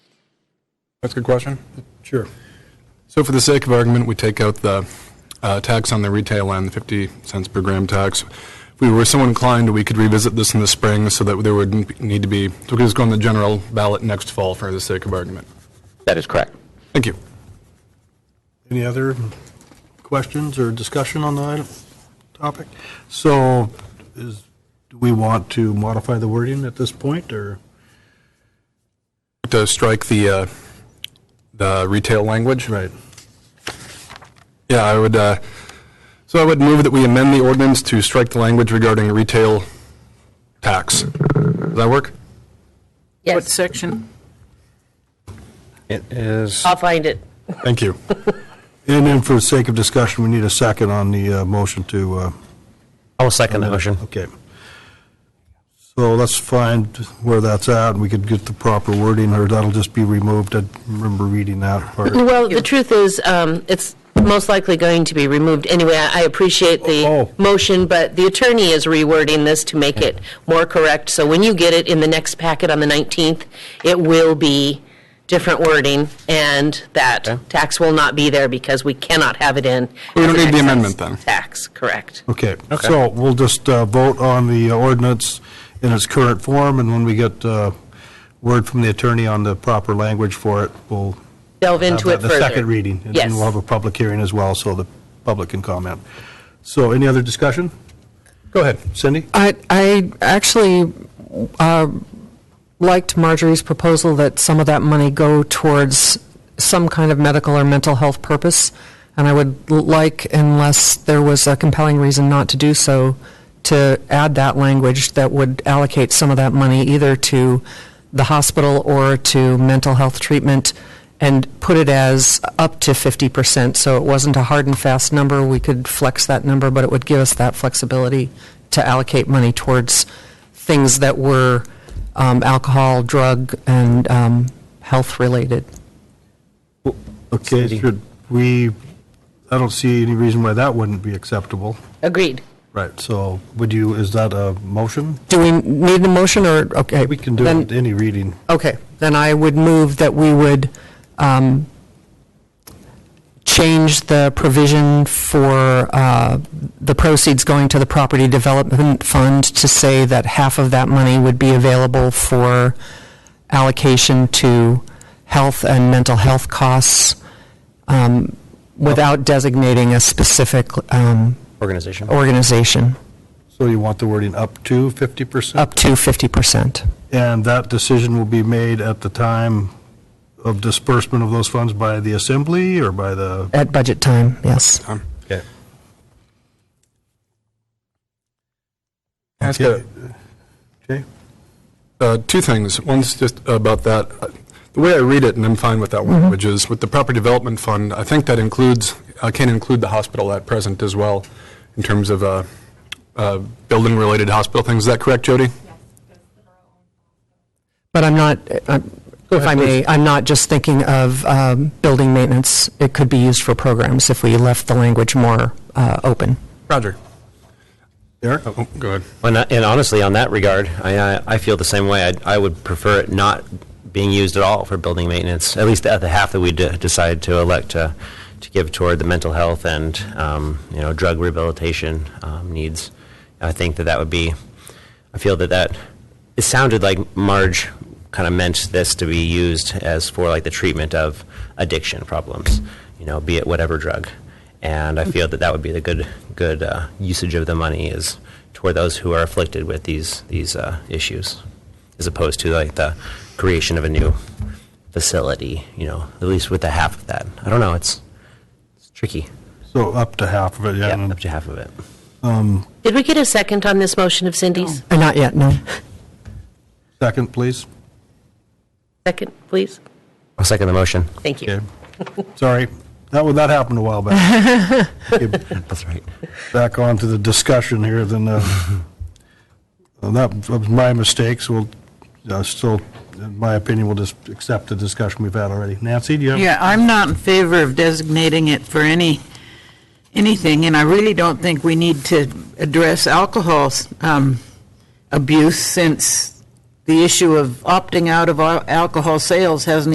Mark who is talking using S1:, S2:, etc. S1: That's a good question.
S2: Sure.
S1: So for the sake of argument, we take out the uh, tax on the retail end, the 50 cents per gram tax. If we were so inclined, we could revisit this in the spring so that there would need to be, so we could just go on the general ballot next fall for the sake of argument.
S3: That is correct.
S1: Thank you.
S2: Any other questions or discussion on the item, topic? So is, do we want to modify the wording at this point, or?
S1: To strike the, uh, the retail language.
S2: Right.
S1: Yeah, I would, uh, so I would move that we amend the ordinance to strike the language regarding retail tax. Does that work?
S4: What
S5: Yes,
S4: section?
S6: It is,
S5: I'll find it.
S1: Thank you.
S2: And then for the sake of discussion, we need a second on the uh, motion to, uh,
S6: I'll second the motion.
S2: okay. So let's find where that's at, and we could get the proper wording, or that'll just be removed. I remember reading that part.
S5: Well, the truth is, um, it's most likely going to be removed anyway. I I appreciate
S2: Oh.
S5: the motion, but the attorney is rewording this to make it more correct. So when you get it in the next packet on the 19th, it will be different wording, and that tax will not be there because we cannot have it in.
S1: We don't
S5: as
S1: need
S5: an
S1: the
S5: excise
S1: amendment then.
S5: Tax, correct.
S2: Okay, so we'll just uh, vote on the ordinance in its current form, and when we get uh, word from the attorney on the proper language for it, we'll
S5: Delve
S2: have
S5: into it
S2: that-
S5: further.
S2: the second reading. And then
S5: Yes.
S2: we'll have a public hearing as well, so the public can comment. So any other discussion?
S1: Go ahead.
S2: Cindy?
S7: I, I actually uh, liked Marjorie's proposal that some of that money go towards some kind of medical or mental health purpose, and I would l- like, unless there was a compelling reason not to do so, to add that language that would allocate some of that money either to the hospital or to mental health treatment and put it as up to 50%, so it wasn't a hard and fast number. We could flex that number, but it would give us that flexibility to allocate money towards things that were um, alcohol, drug, and um, health-related.
S2: Okay,
S6: Cindy.
S2: should we, I don't see any reason why that wouldn't be acceptable.
S5: Agreed.
S2: Right, so would you, is that a motion?
S7: Do we need a motion, or, okay?
S2: We can do
S7: then-
S2: it any reading.
S7: Okay, then I would move that we would um, change the provision for uh, the proceeds going to the Property Development Fund to say that half of that money would be available for allocation to health and mental health costs um, without designating a specific um,
S6: Organization.
S7: organization,
S2: So you want the wording up to 50%?
S7: up to 50%.
S2: And that decision will be made at the time of disbursement of those funds by the assembly or by the?
S7: At budget time, yes.
S2: Okay.
S1: Ask a-
S2: Okay,
S1: Uh, Two things. One's just about that. The way I read it, and I'm fine with that one, which is with the property development fund, I think that includes, uh, can include the hospital at present as well, in terms of uh, uh, building-related hospital things. Is that correct, Jody?
S7: But I'm not, I'm- if I may, I'm not just thinking of um, building maintenance. It could be used for programs if we left the language more uh, open.
S1: Roger.
S2: Eric?
S1: Oh, go ahead.
S6: And I- and honestly, on that regard, I, I- I feel the same way. I'd- I would prefer it not being used at all for building maintenance, at least at the half that we de- decide to elect to, to give toward the mental health and, um, you know, drug rehabilitation um, needs. I think that that would be, I feel that that, it sounded like Marge kind of meant this to be used as for like the treatment of addiction problems, you know, be it whatever drug. And I feel that that would be the good, good uh, usage of the money is toward those who are afflicted with these, these uh, issues, as opposed to like the creation of a new facility, you know, at least with the half of that. I don't know, it's, it's tricky.
S2: So up to half of it, yeah.
S6: Yeah, up
S2: and-
S6: to half of it.
S5: Did we get a second on this motion of Cindy's?
S7: Uh, Not yet, no.
S2: Second, please.
S5: Second, please?
S6: I'll second the motion.
S5: Thank you.
S2: Okay. Sorry, that, one- that happened a while back. Okay,
S6: That's right.
S2: Back on to the discussion here, then, uh, and that was my mistake, so we'll, uh, still, in my opinion, we'll just accept the discussion we've had already. Nancy, do you have?
S4: Yeah, I'm not in favor of designating it for any, anything, and I really don't think we need to address alcohol um, abuse since the issue of opting out of al- alcohol sales hasn't